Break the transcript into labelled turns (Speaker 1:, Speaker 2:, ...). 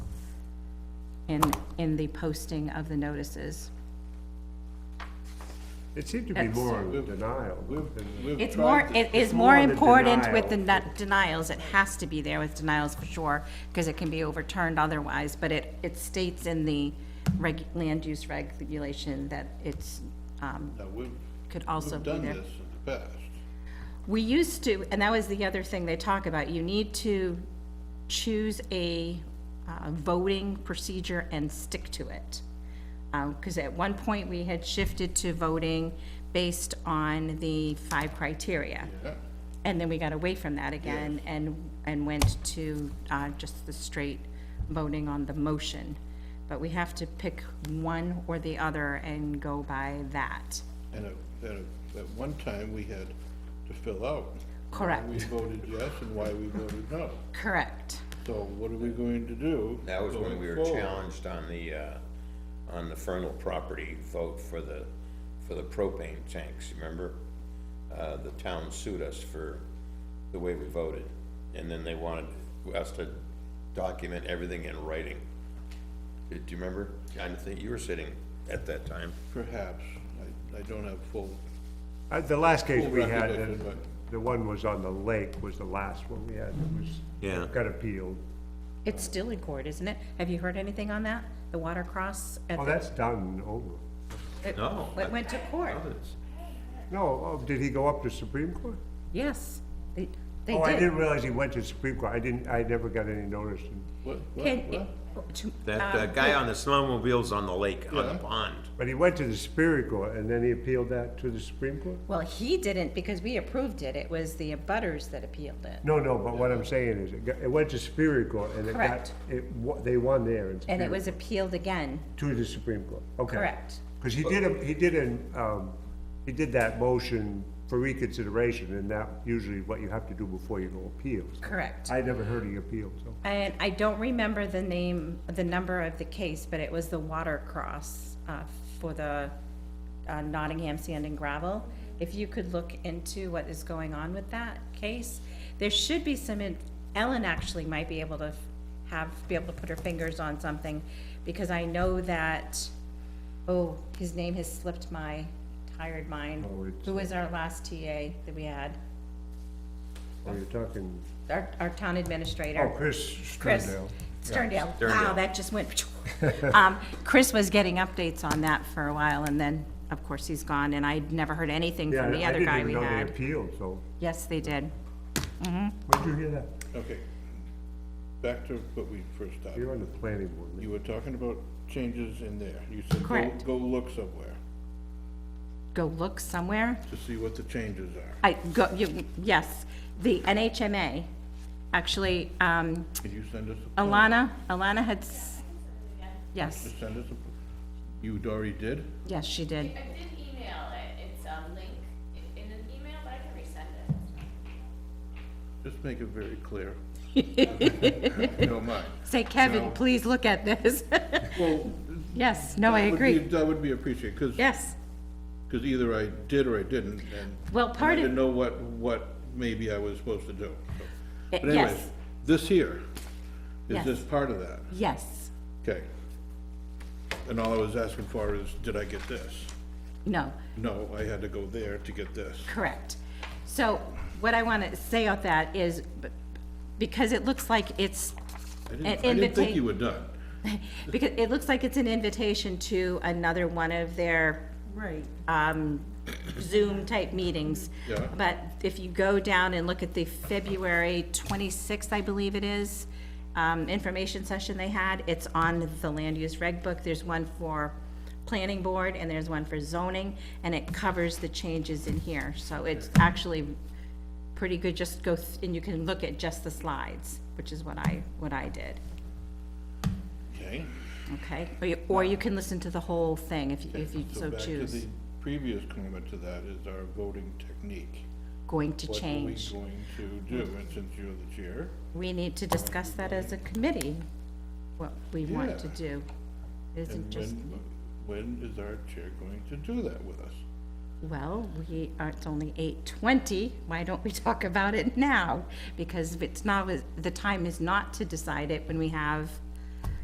Speaker 1: in, in the posting of the notices.
Speaker 2: It seemed to be
Speaker 1: That's-
Speaker 2: more on the denial than-
Speaker 3: We've
Speaker 1: It's
Speaker 3: tried
Speaker 1: more,
Speaker 3: to-
Speaker 1: it
Speaker 2: it's
Speaker 1: is
Speaker 2: more
Speaker 1: more
Speaker 2: on the
Speaker 1: important with the
Speaker 2: denial.
Speaker 1: nu- denials, it has to be there with denials for sure, because it can be overturned otherwise, but it, it states in the reg, land use regulation that it's, um,
Speaker 3: Now, we've-
Speaker 1: could also
Speaker 3: We've
Speaker 1: be
Speaker 3: done
Speaker 1: there.
Speaker 3: this in the past.
Speaker 1: We used to, and that was the other thing they talk about, you need to choose a uh, voting procedure and stick to it. Because at one point, we had shifted to voting based on the five criteria.
Speaker 3: Yeah.
Speaker 1: And then we got away from that again and, and went to uh, just the straight voting on the motion. But we have to pick one or the other and go by that.
Speaker 3: And at, at, at one time, we had to fill out.
Speaker 1: Correct.
Speaker 3: Why we voted yes and why we voted no.
Speaker 1: Correct.
Speaker 3: So what are we going to do?
Speaker 4: That was when
Speaker 3: going
Speaker 4: we were
Speaker 3: forward?
Speaker 4: challenged on the, uh, on the Fernal property vote for the, for the propane tanks, remember? Uh, the town sued us for the way we voted, and then they wanted us to document everything in writing. Do you remember? I think you were sitting at that time.
Speaker 3: Perhaps. I, I don't have full,
Speaker 2: Uh, The last case
Speaker 3: Full
Speaker 2: we had,
Speaker 3: recollection,
Speaker 2: the-
Speaker 3: but-
Speaker 2: the one was on the lake was the last one we had, that was.
Speaker 4: Yeah.
Speaker 2: Got appealed.
Speaker 1: It's still in court, isn't it? Have you heard anything on that? The water cross? at
Speaker 2: Oh,
Speaker 1: the-
Speaker 2: that's done, over.
Speaker 1: it-
Speaker 4: No.
Speaker 1: It went to court,
Speaker 2: No, oh, did he go up to Supreme Court?
Speaker 1: yes. They they
Speaker 2: Oh, I
Speaker 1: did.
Speaker 2: didn't realize he went to Supreme Court, I didn't, I never got any notice. and-
Speaker 3: what, what,
Speaker 1: Can-
Speaker 3: what?
Speaker 1: to-
Speaker 4: That,
Speaker 1: uh,
Speaker 4: that guy on the snowmobile's on the lake, on the
Speaker 3: Yeah.
Speaker 4: pond.
Speaker 2: But he went to the Superior Court, and then he appealed that to the Supreme Court?
Speaker 1: Well, he didn't because we approved it. It was the abutters that appealed it.
Speaker 2: No, no, but what I'm saying is, it got, it went to Superior Court, and it got,
Speaker 1: Correct.
Speaker 2: it, wa- they won there. in
Speaker 1: And
Speaker 2: Superior
Speaker 1: it was appealed again.
Speaker 2: To the Supreme Court, okay.
Speaker 1: Correct.
Speaker 2: Because he did, a- he did an, um, he did that motion for reconsideration, and that usually what you have to do before you go appeals.
Speaker 1: Correct.
Speaker 2: I never heard he appealed, so.
Speaker 1: And I don't remember the name, the number of the case, but it was the water cross uh, for the uh, Nottingham Sand and Gravel. If you could look into what is going on with that case, there should be some, in- Ellen actually might be able to have, be able to put her fingers on something, because I know that, oh, his name has slipped my tired mind.
Speaker 2: Oh, it's-
Speaker 1: Who was our last TA that we had?
Speaker 2: Oh, you're talking,
Speaker 1: Our, our town
Speaker 2: oh,
Speaker 1: administrator.
Speaker 2: Chris
Speaker 1: Chris.
Speaker 2: Sterndale.
Speaker 1: Sterndale. Wow,
Speaker 4: Sterndale.
Speaker 1: that just went. Um, Chris was getting updates on that for a while and then, of course, he's gone and I'd never heard anything
Speaker 2: Yeah,
Speaker 1: from the
Speaker 2: I
Speaker 1: other
Speaker 2: didn't
Speaker 1: guy
Speaker 2: even
Speaker 1: we
Speaker 2: know they
Speaker 1: had.
Speaker 2: appealed, so.
Speaker 1: Yes, they did.
Speaker 2: Where'd you hear that?
Speaker 3: Okay. Back to what we first started.
Speaker 2: You're on the planning board. man.
Speaker 3: You were talking about changes in there. You said, go,
Speaker 1: Correct.
Speaker 3: go look somewhere
Speaker 1: Go look somewhere.
Speaker 3: to see what the changes are.
Speaker 1: I, go, you, yes, the NHMA, actually, um,
Speaker 3: Can you send us a? plan?
Speaker 1: Alana, Alana had, s- yes,
Speaker 3: Just Send us a, you already did?
Speaker 1: yes, she did.
Speaker 5: I did email it, it's a link i- in an email, but I can resend it.
Speaker 3: Just make it very clear. If you Don't mind.
Speaker 1: Say, Kevin,
Speaker 3: No.
Speaker 1: please look at this.
Speaker 3: Well,
Speaker 1: Yes, no, I
Speaker 3: that would be-
Speaker 1: agree.
Speaker 3: That would be appreciated, because,
Speaker 1: Yes,
Speaker 3: because either I did or I didn't, and.
Speaker 1: Well,
Speaker 3: and
Speaker 1: part
Speaker 3: I
Speaker 1: of- Eh,
Speaker 3: didn't know what, what maybe I was supposed to do. so. But anyways,
Speaker 1: yes,
Speaker 3: this here, is
Speaker 1: Yes.
Speaker 3: this part of that?
Speaker 1: yes.
Speaker 3: Okay. And all I was asking for is, did I get this?
Speaker 1: No,
Speaker 3: No, I had to go there to get this.
Speaker 1: correct. So what I want to say about that is, b- because it looks like it's
Speaker 3: I
Speaker 1: an
Speaker 3: didn't, I didn't think you
Speaker 1: invitation,
Speaker 3: were done.
Speaker 1: because it looks like it's an invitation to another one of their
Speaker 6: Right.
Speaker 1: Zoom-type meetings.
Speaker 3: Yeah.
Speaker 1: But if you go down and look at the February 26th, I believe it is, um, information session they had, it's on the land use reg book. There's one for planning board, and there's one for zoning, and it covers the changes in here. So it's actually pretty good, just go, th- and you can look at just the slides, which is what I, what I did,
Speaker 3: Okay.
Speaker 1: okay? Or you, or you can listen to the whole thing if you, if you so
Speaker 3: Back to
Speaker 1: choose.
Speaker 3: the previous comment to that is our voting technique.
Speaker 1: Going to
Speaker 3: What are
Speaker 1: change.
Speaker 3: we going to do? And since you're the chair,
Speaker 1: we need to discuss that as a committee, what we want to
Speaker 3: Yeah.
Speaker 1: do. It Isn't
Speaker 3: and
Speaker 1: just,
Speaker 3: when, when is our chair going to do that with us?
Speaker 1: well, we, are- it's only eight twenty, why don't we talk about it now? Because if it's not, the time is not to decide it when we have